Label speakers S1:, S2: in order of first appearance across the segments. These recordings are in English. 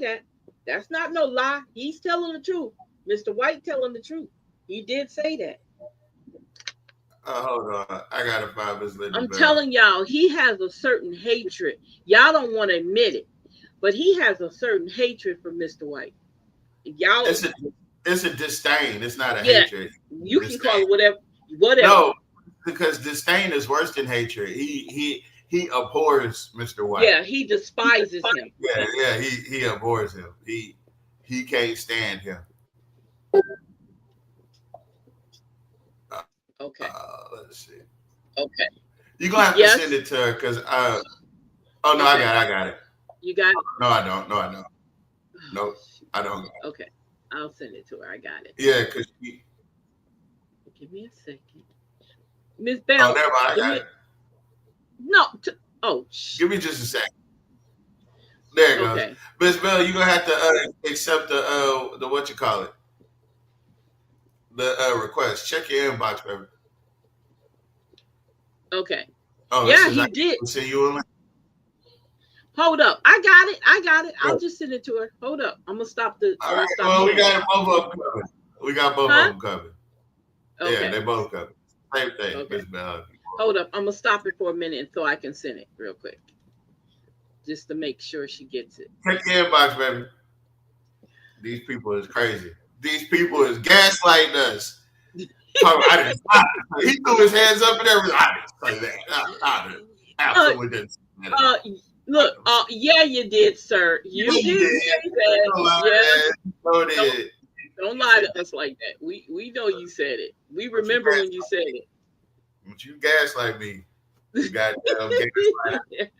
S1: that. That's not no lie. He's telling the truth. Mr. White telling the truth. He did say that.
S2: Uh, hold on. I gotta find this lady.
S1: I'm
S2: back.
S1: telling y'all, he has a certain hatred. Y'all don't want to admit it, but he has a certain hatred for Mr. White. Y'all,
S2: It's a it's a disdain. It's not a
S1: Yeah.
S2: hatred.
S1: you can
S2: it's-
S1: call it whatever, whatever.
S2: No, because disdain is worse than hatred. He he he abhors Mr. White.
S1: yeah, he despises him.
S2: yeah, yeah, He he abhors him. He he can't stand him.
S1: Okay,
S2: Uh, let's see.
S1: okay,
S2: You gonna have
S1: Yes.
S2: to send it to her because uh oh no, I
S1: Okay.
S2: got it, I got it.
S1: you got it.
S2: No, I don't. No, I don't. Nope. I don't. got it.
S1: Okay, I'll send it to her. I got it.
S2: Yeah, because she
S1: Give me a second, Miss Bell.
S2: oh never mind, I
S1: give
S2: got
S1: me-
S2: it.
S1: No, t- oh, sh-
S2: Give me just a second. There it goes.
S1: okay.
S2: Miss Bell, you gonna have to uh, accept the uh, the what you call it, the uh, request. Check your inbox, baby.
S1: Okay.
S2: Oh,
S1: yeah,
S2: this is
S1: he did.
S2: We'll send you a link.
S1: Hold up. I got it. I got it. I'll
S2: Cool.
S1: just send it to her. Hold up. I'm gonna stop the. I'm
S2: All
S1: gonna
S2: right,
S1: stop
S2: well, we
S1: the-
S2: got both of them covered. We got both
S1: Huh?
S2: of them covered. Yeah,
S1: Okay.
S2: they both covered. Same thing,
S1: Okay.
S2: Miss Bell.
S1: Hold up. I'm gonna stop it for a minute so I can send it real quick, just to make sure she gets it.
S2: Check your inbox, baby. These people is crazy. These people is gaslighting us. Oh, I didn't. I- he threw his hands up and everything. I didn't say that. I, I didn't- absolutely didn't. Say that.
S1: Uh, look. Uh, yeah, you did, sir. You
S2: Yeah, you
S1: did
S2: did.
S1: say that. Yeah.
S2: So did.
S1: Don't lie to us like that. We we know you said it. We remember when you said it.
S2: But you gaslight me. You goddamn gaslight.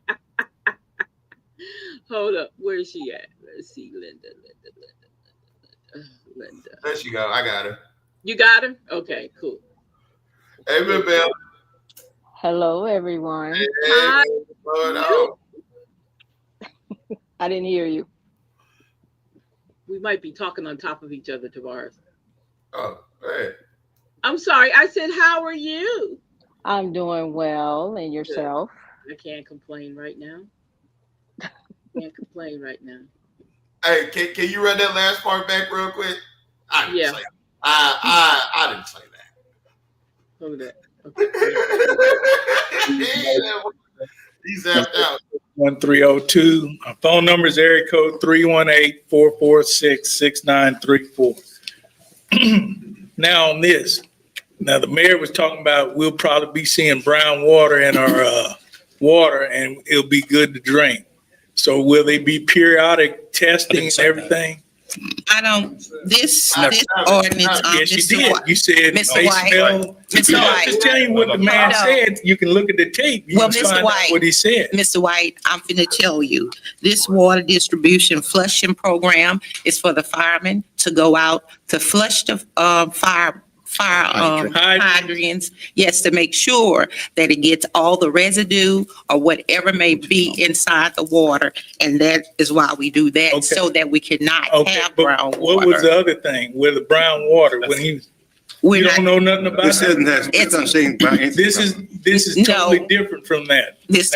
S1: Hold up. Where is she at? Let's see, Linda. Linda. Linda. Linda. Linda.
S2: There she go. I got her.
S1: You got him? Okay, cool.
S2: Hey, Miss Bell.
S3: Hello, everyone.
S2: Hey,
S1: Hi.
S2: Miss Bell. Oh,
S3: I didn't hear you.
S1: We might be talking on top of each other, Tavares.
S2: oh, hey.
S1: I'm sorry. I said, How are you?
S3: I'm doing well, and yourself?
S1: I can't complain right now. Can't complain right now.
S2: Hey, can, can you run that last part back real quick? I didn't
S1: Yeah.
S2: say that. I, I, I didn't say
S1: Hold up. Okay.
S2: that. He's zapped out.
S4: 1302. Our oh phone number is area code 318-446-6934. Now on this, now the mayor was talking about we'll probably be seeing brown water in our uh, water and it'll be good to drink. So will they be periodic testing and everything?
S5: I don't, this,
S2: No.
S5: this ordinance, um,
S4: Yes, you
S5: Mr.
S4: did.
S5: White.
S4: You said they
S5: Mr. White.
S4: smell.
S5: Mr.
S4: I'm
S5: White.
S4: Just telling you what the man
S5: No.
S4: said. You can look at the tape. You
S5: Well,
S4: can
S5: Mr.
S4: find out
S5: White.
S4: what he said.
S5: Mr. White, I'm finna tell you, this water distribution flushing program is for the firemen to go out to flush the, uh, fire, fire, um,
S4: Hydrant.
S5: hydrants. Yes, to make sure that it gets all the residue or whatever may be inside the water. And that is why we do
S4: Okay.
S5: that, so that we cannot
S4: Okay,
S5: have brown
S4: but what was
S5: water.
S4: the other thing with the brown water when he was?
S5: We're
S4: You
S5: not
S4: don't know nothing about
S6: This isn't
S4: that.
S6: that, it's not saying about anything.
S4: This is this is
S5: No.
S4: totally different from that.
S5: This,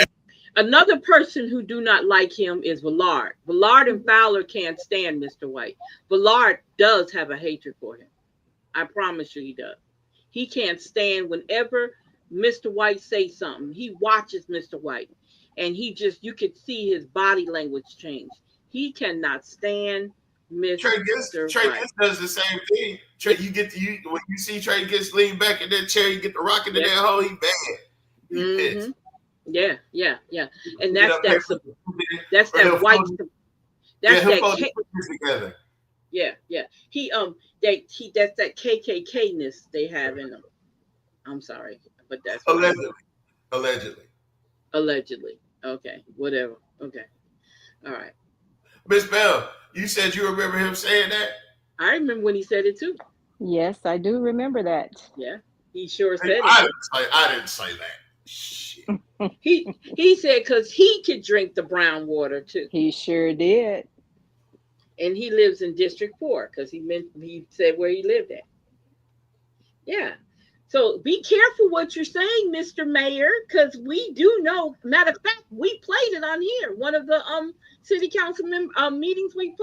S1: Another person who do not like him is Villard. Villard and Fowler can't stand Mr. White. Villard does have a hatred for him. I promise you he does. He can't stand whenever Mr. White say something. He watches Mr. White and he just you could see his body language change. He cannot stand
S2: Trey Gist,
S1: Mr.
S2: Trey
S1: White.
S2: Gist does the same thing. Trey, you get to you when you see Trey Gist lean back in that chair, you get the rocket in
S1: Yeah.
S2: that hole. He bad. He pissed.
S1: Mhm. Yeah, yeah, yeah. And
S2: Get
S1: that's
S2: up
S1: that
S2: there.
S1: that's
S2: Or he'll
S1: that white
S2: phone-
S1: that's
S2: yeah, he'll
S1: that
S2: fold his
S1: ca-
S2: fingers together.
S1: Yeah, yeah. He um they he that's that KKK ness they have in them. I'm sorry, but that's what-
S2: Allegedly. Allegedly.
S1: allegedly. Okay, whatever. Okay, all right.
S2: Miss Bell, you said you remember him saying that?
S1: I remember when he said it too.
S3: Yes, I do remember that.
S1: Yeah, he sure
S2: I
S1: said
S2: didn't
S1: it.
S2: say I didn't say that. Shit.
S1: He he said because he could drink the brown water too,
S3: He sure did.
S1: and he lives in District Four because he meant he said where he lived at. Yeah. So be careful what you're saying, Mr. Mayor, because we do know. Matter of fact, we played it on here. One of the um city council mem- um, meetings we played.